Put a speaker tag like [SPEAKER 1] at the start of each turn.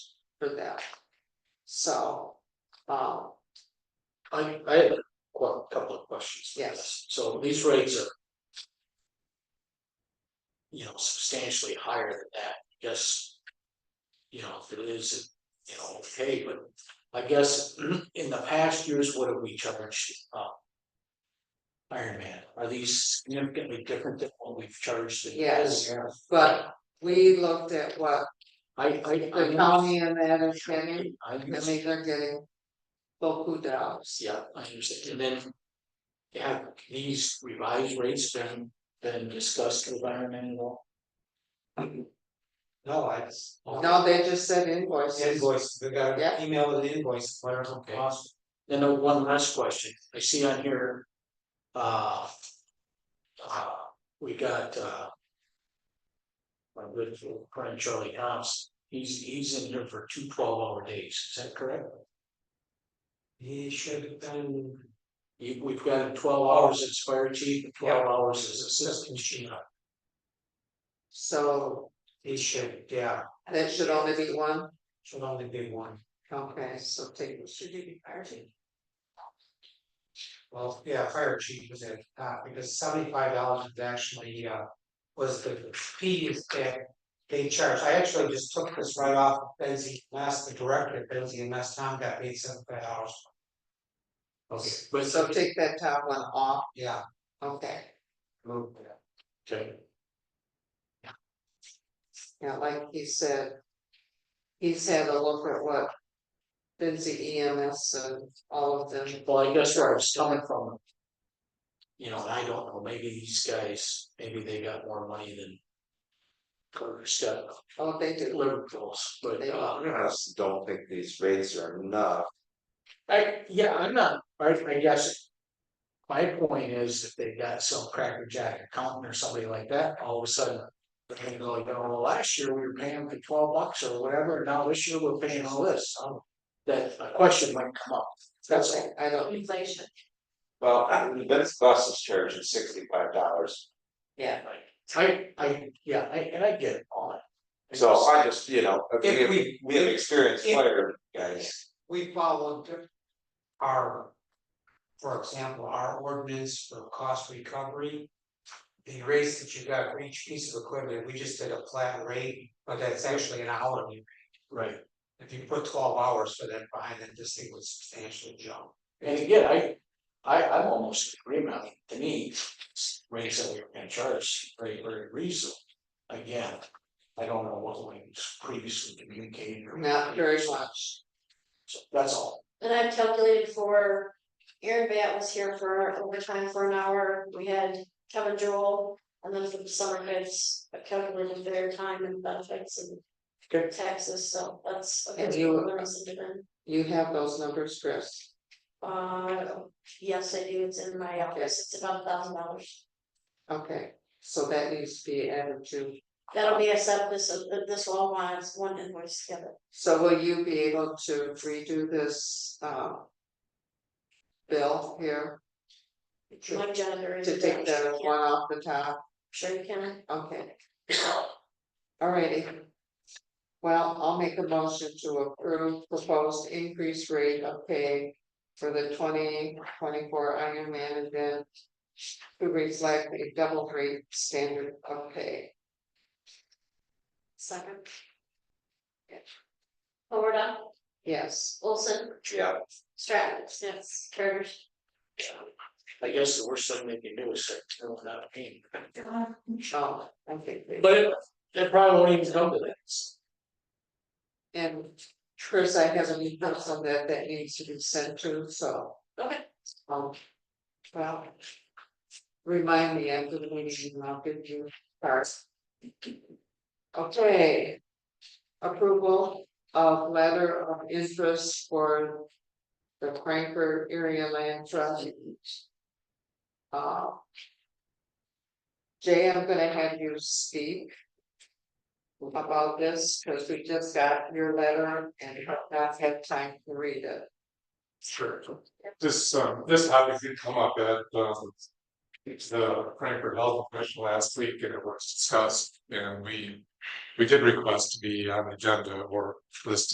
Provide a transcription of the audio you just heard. [SPEAKER 1] for that. So, um,
[SPEAKER 2] I, I have a qu- couple of questions. for
[SPEAKER 1] Yes.
[SPEAKER 2] this. So these rates are. You know, substantially higher than that, I guess. You know, if it is, you know, okay, but I guess in the past years, what have we charged, uh? Iron Man, are these significantly different than what we've charged? in the past?
[SPEAKER 1] but we looked at what
[SPEAKER 2] I, I,
[SPEAKER 1] the
[SPEAKER 2] I.
[SPEAKER 1] county and that is getting,
[SPEAKER 2] I
[SPEAKER 1] I
[SPEAKER 2] used-
[SPEAKER 1] mean, they're getting. Local dollars,
[SPEAKER 2] Yeah, I understand, and then. Have these revised rates been, been discussed with Iron Man at all?
[SPEAKER 3] No, I just.
[SPEAKER 1] no, they just said invoices,
[SPEAKER 3] Invoice, we got
[SPEAKER 1] Yeah.
[SPEAKER 3] an email with an invoice, whatever
[SPEAKER 2] Okay.
[SPEAKER 3] it cost.
[SPEAKER 2] Then uh, one last question, I see on here. Uh. uh, we got, uh. My good friend Charlie Thompson, he's, he's in here for two 12 hour days, is that correct?
[SPEAKER 3] He should have been,
[SPEAKER 2] You, we've got twelve hours as fire chief, and twelve
[SPEAKER 3] Yeah.
[SPEAKER 2] hours as assistant chief.
[SPEAKER 1] so
[SPEAKER 3] he should, yeah,
[SPEAKER 1] that should only be one,
[SPEAKER 3] should only be one.
[SPEAKER 1] okay, so take. Should it be
[SPEAKER 3] Well, yeah, fire chief was at, the top because seventy-five dollars is actually, uh, was the fees that they charged. I actually just took this right off of Benzie, last, the director at Benzie, and last time got paid seventy-five dollars.
[SPEAKER 2] Okay, but,
[SPEAKER 1] So take that top one off,
[SPEAKER 3] Yeah,
[SPEAKER 1] okay,
[SPEAKER 3] move that.
[SPEAKER 2] okay,
[SPEAKER 1] yeah, like he said. He's had a look at what. Benzie EMS and all of them,
[SPEAKER 2] well, I guess where I was coming from. You know, and I don't know, maybe these guys, maybe they got more money than. Carter's got,
[SPEAKER 1] oh, they do.
[SPEAKER 2] liberals, but,
[SPEAKER 1] They
[SPEAKER 2] uh,
[SPEAKER 4] I just don't think these rates are enough.
[SPEAKER 2] I, yeah, I'm not, I, I guess. My point is if they got some crackerjack accountant or somebody like that, all of a sudden. They're gonna go like, oh, well, last year we were paying for twelve bucks or whatever, and now this year we're paying all this, um. That a question might come up, that's all.
[SPEAKER 1] I don't,
[SPEAKER 5] Inflation.
[SPEAKER 4] Well, I mean, Vince Bus is charging sixty-five dollars,
[SPEAKER 1] yeah,
[SPEAKER 2] I, I, yeah, I, and I get it all. I
[SPEAKER 4] so
[SPEAKER 2] just-
[SPEAKER 4] I just, you know, we
[SPEAKER 3] If
[SPEAKER 4] have,
[SPEAKER 3] we-
[SPEAKER 4] we have experienced
[SPEAKER 3] if-
[SPEAKER 4] fire guys.
[SPEAKER 3] we followed our. For example, our ordinance for cost recovery. The rates that you got for each piece of equipment, we just did a flat rate, but that's actually an hourly. rate.
[SPEAKER 2] Right,
[SPEAKER 3] If you put twelve hours for that behind it, this thing would substantially jump.
[SPEAKER 2] and again, I, I, I'm almost in agreement, I mean, to me, rates that we were gonna charge, very, very reasonable. Again, I don't know what was previously communicated or.
[SPEAKER 1] not very much.
[SPEAKER 2] So That's all,
[SPEAKER 5] And I've calculated for, Aaron Bat was here for overtime for an hour, we had Kevin Joel. And then for the summer kids, I calculated their time and benefits
[SPEAKER 2] Okay.
[SPEAKER 5] and taxes, so that's. okay.
[SPEAKER 1] And you-
[SPEAKER 5] There was a different-
[SPEAKER 1] You have those numbers, Chris?
[SPEAKER 5] Uh, yes, I do, it's in my office, it's about a thousand dollars.
[SPEAKER 1] Okay, so that needs to be added to,
[SPEAKER 5] That'll be a set, this, this will all want, it's one invoice together.
[SPEAKER 1] so will you be able to redo this, um. Bill here
[SPEAKER 5] My janitor is.
[SPEAKER 1] to take the one off the top,
[SPEAKER 5] Sure you can,
[SPEAKER 1] okay. Alrighty. Well, I'll make a motion to approve proposed increased rate of pay for the twenty twenty-four Iron Man event. To reflect a double rate standard of pay,
[SPEAKER 5] second. Oh, Florida,
[SPEAKER 1] yes.
[SPEAKER 5] Olson,
[SPEAKER 4] Yeah,
[SPEAKER 5] Stratton, yes, Turner.
[SPEAKER 2] I guess the worst thing they can do is say, no, we're not paying.
[SPEAKER 1] Oh, okay.
[SPEAKER 2] But it, it probably won't even come to that, so.
[SPEAKER 1] And Chris, I have a new person that that needs to be sent to, so,
[SPEAKER 5] Okay.
[SPEAKER 1] um. Well. Remind me, I'm gonna need you, and I'll give you ours. Okay. Approval of letter of interest for. The Frankfurt area land trust. Uh. Jay, I'm gonna have you speak about this, because we just got your letter and have not had time to read it.
[SPEAKER 6] Sure. This, um, this topic did come up at, um, the Frankfurt Health Commission last week and it was discussed and we, we did request to be on the agenda or listed.